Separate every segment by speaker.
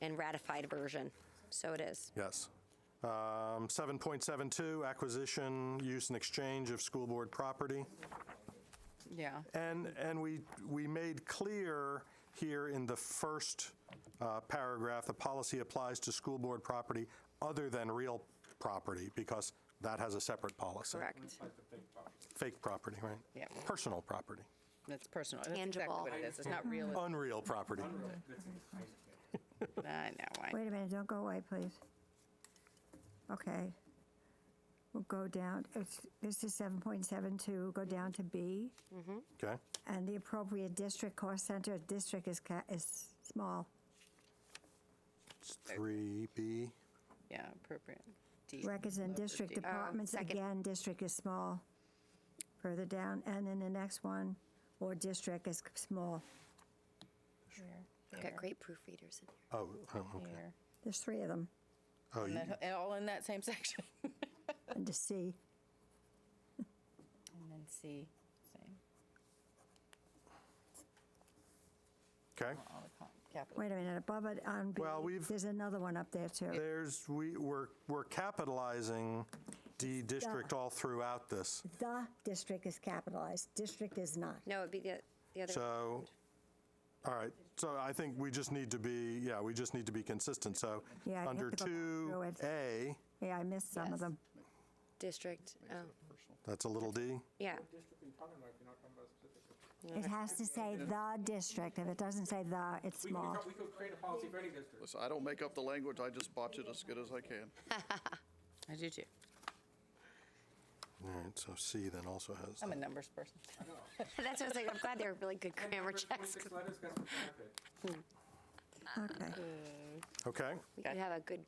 Speaker 1: and ratified version. So it is.
Speaker 2: Yes. Um, 7.72, acquisition, use, and exchange of school board property.
Speaker 3: Yeah.
Speaker 2: And, and we, we made clear here in the first uh, paragraph, the policy applies to school board property other than real property, because that has a separate policy.
Speaker 1: Correct.
Speaker 2: Fake property, right?
Speaker 3: Yep.
Speaker 2: Personal property,
Speaker 3: That's personal. That's exactly
Speaker 1: Tangible.
Speaker 3: what it is. It's not real.
Speaker 2: unreal property.
Speaker 3: I know. I-
Speaker 4: Wait a minute, don't go away, please. Okay. We'll go down, it's, this is 7.72, go down to B,
Speaker 2: Okay?
Speaker 4: and the appropriate district cost center, district is, ca- is small,
Speaker 2: It's 3B.
Speaker 3: Yeah, appropriate. D.
Speaker 4: records and
Speaker 3: Lower
Speaker 4: district uh,
Speaker 3: D.
Speaker 4: departments,
Speaker 1: second.
Speaker 4: again, district is small. Further down, and then the next one, or district is small.
Speaker 1: We've got great proofreaders in here.
Speaker 2: Oh, oh, okay.
Speaker 3: Here.
Speaker 4: There's three of them,
Speaker 2: Oh,
Speaker 3: And
Speaker 2: you-
Speaker 3: that- and all in that same section.
Speaker 4: under C.
Speaker 3: And then C, same,
Speaker 2: okay.
Speaker 3: all the co- capital.
Speaker 4: Wait a minute, above it on B,
Speaker 2: Well, we've-
Speaker 4: there's another one up there too.
Speaker 2: There's, we, we're, we're capitalizing D district all throughout this.
Speaker 4: The district is capitalized, district is not.
Speaker 1: No, it'd be the, the other.
Speaker 2: So, all right, so I think we just need to be, yeah, we just need to be consistent. So,
Speaker 4: Yeah, I'd
Speaker 2: under
Speaker 4: have to go back through
Speaker 2: 2A,
Speaker 4: Yeah, I missed some of
Speaker 3: Yes.
Speaker 4: them.
Speaker 1: District, oh,
Speaker 2: that's a little d,
Speaker 1: yeah.
Speaker 4: It has to say the district. If it doesn't say the, it's
Speaker 5: We could,
Speaker 4: small.
Speaker 5: we could create a policy for any district.
Speaker 6: Listen, I don't make up the language, I just botch it as good as I can.
Speaker 3: I do too.
Speaker 2: all right, so C then also has,
Speaker 3: I'm a numbers person.
Speaker 1: That's what I was like, I'm glad they're really good grammar
Speaker 5: Numbers,
Speaker 1: checks.
Speaker 5: 26 letters, guess what's happened?
Speaker 4: Okay.
Speaker 2: okay.
Speaker 1: We could have a good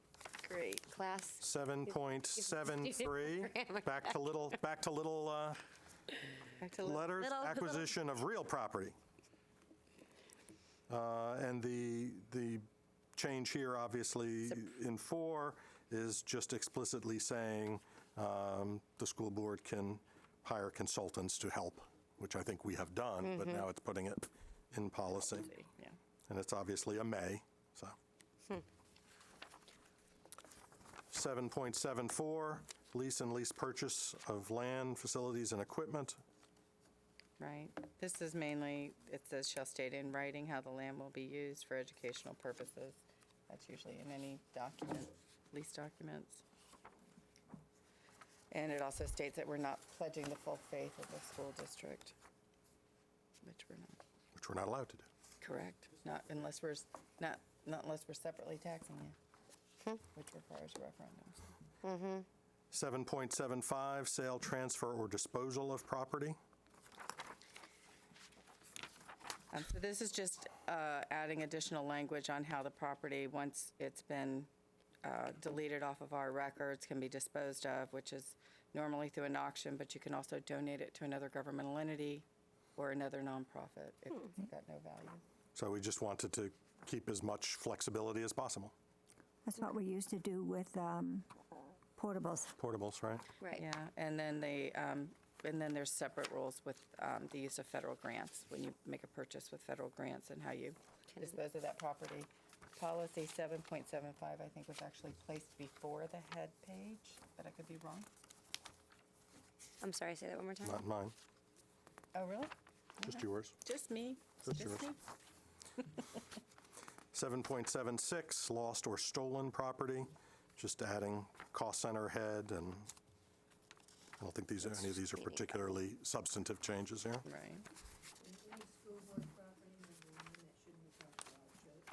Speaker 3: Great.
Speaker 1: class.
Speaker 2: 7.73, back to little, back to little uh,
Speaker 3: Back to Lynn.
Speaker 2: letters,
Speaker 1: Little-
Speaker 2: acquisition of real property. Uh, And the, the change here, obviously, in four, is just explicitly saying um, the school board can hire consultants to help, which I think we have done, but now it's putting it in policy.
Speaker 3: Mm-hmm. Yeah. Hmm.
Speaker 2: And it's obviously a may, so. 7.74, lease and lease purchase of land, facilities, and equipment.
Speaker 3: Right. This is mainly, it says shall state in writing how the land will be used for educational purposes. That's usually in any document, lease documents. And it also states that we're not pledging the full faith of the school district, which we're not.
Speaker 2: which we're not allowed to do.
Speaker 3: Correct. Not unless we're, s- not, not unless we're separately taxing you, which requires a referendum. so.
Speaker 2: 7.75, sale, transfer, or disposal of property.
Speaker 3: Um, So this is just uh, adding additional language on how the property, once it's been uh, deleted off of our records, can be disposed of, which is normally through an auction, but you can also donate it to another governmental entity or another nonprofit if it's got no value.
Speaker 2: So we just wanted to keep as much flexibility as possible.
Speaker 4: That's what we used to do with um, portables.
Speaker 2: Portables, right?
Speaker 1: Right.
Speaker 3: Yeah, and then they, um, and then there's separate rules with um, the use of federal grants, when you make a purchase with federal grants and how you dispose of that property. Policy 7.75, I think, was actually placed before the head page, but I could be wrong.
Speaker 1: I'm sorry, say that one more time.
Speaker 2: Not mine,
Speaker 3: Oh, really?
Speaker 2: just yours.
Speaker 3: Just me?
Speaker 2: Just yours. 7.76, lost or stolen property, just adding cost center head, and I don't think these, are any of these are particularly substantive changes here.
Speaker 3: Right.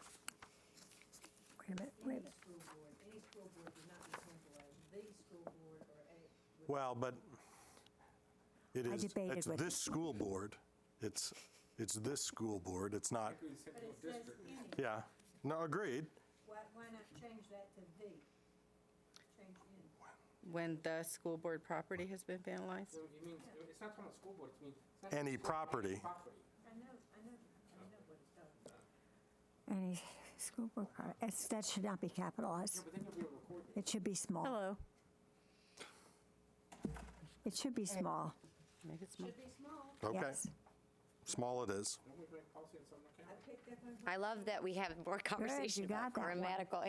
Speaker 4: Wait a minute, wait a minute.
Speaker 7: school board, any school board would not be tantalized, the school board or a,
Speaker 2: Well, but it
Speaker 4: I
Speaker 2: is,
Speaker 4: debated
Speaker 2: it's
Speaker 4: with-
Speaker 2: this school board. It's, it's this school board. It's not, yeah. No, agreed.
Speaker 7: why, why not change that to the? Change in.
Speaker 3: When the school board property has been vandalized?
Speaker 5: So you mean, it's not talking about school board, it means. it's not
Speaker 2: Any
Speaker 5: just school board, any
Speaker 2: property.
Speaker 5: Property.
Speaker 7: I know, I know, I know what it's done.
Speaker 4: Any school board, pro- it's- that should not be capitalized.
Speaker 5: But then you'll be able to record it.
Speaker 4: It should be small.
Speaker 3: Hello.
Speaker 4: It should be small,
Speaker 3: Make it small.
Speaker 7: Be small,
Speaker 2: Okay.
Speaker 4: yes.
Speaker 2: small it is.
Speaker 5: Don't we make policy in some account?
Speaker 7: I picked up on
Speaker 1: I love that we have more conversation about
Speaker 4: got that one.
Speaker 1: grammatical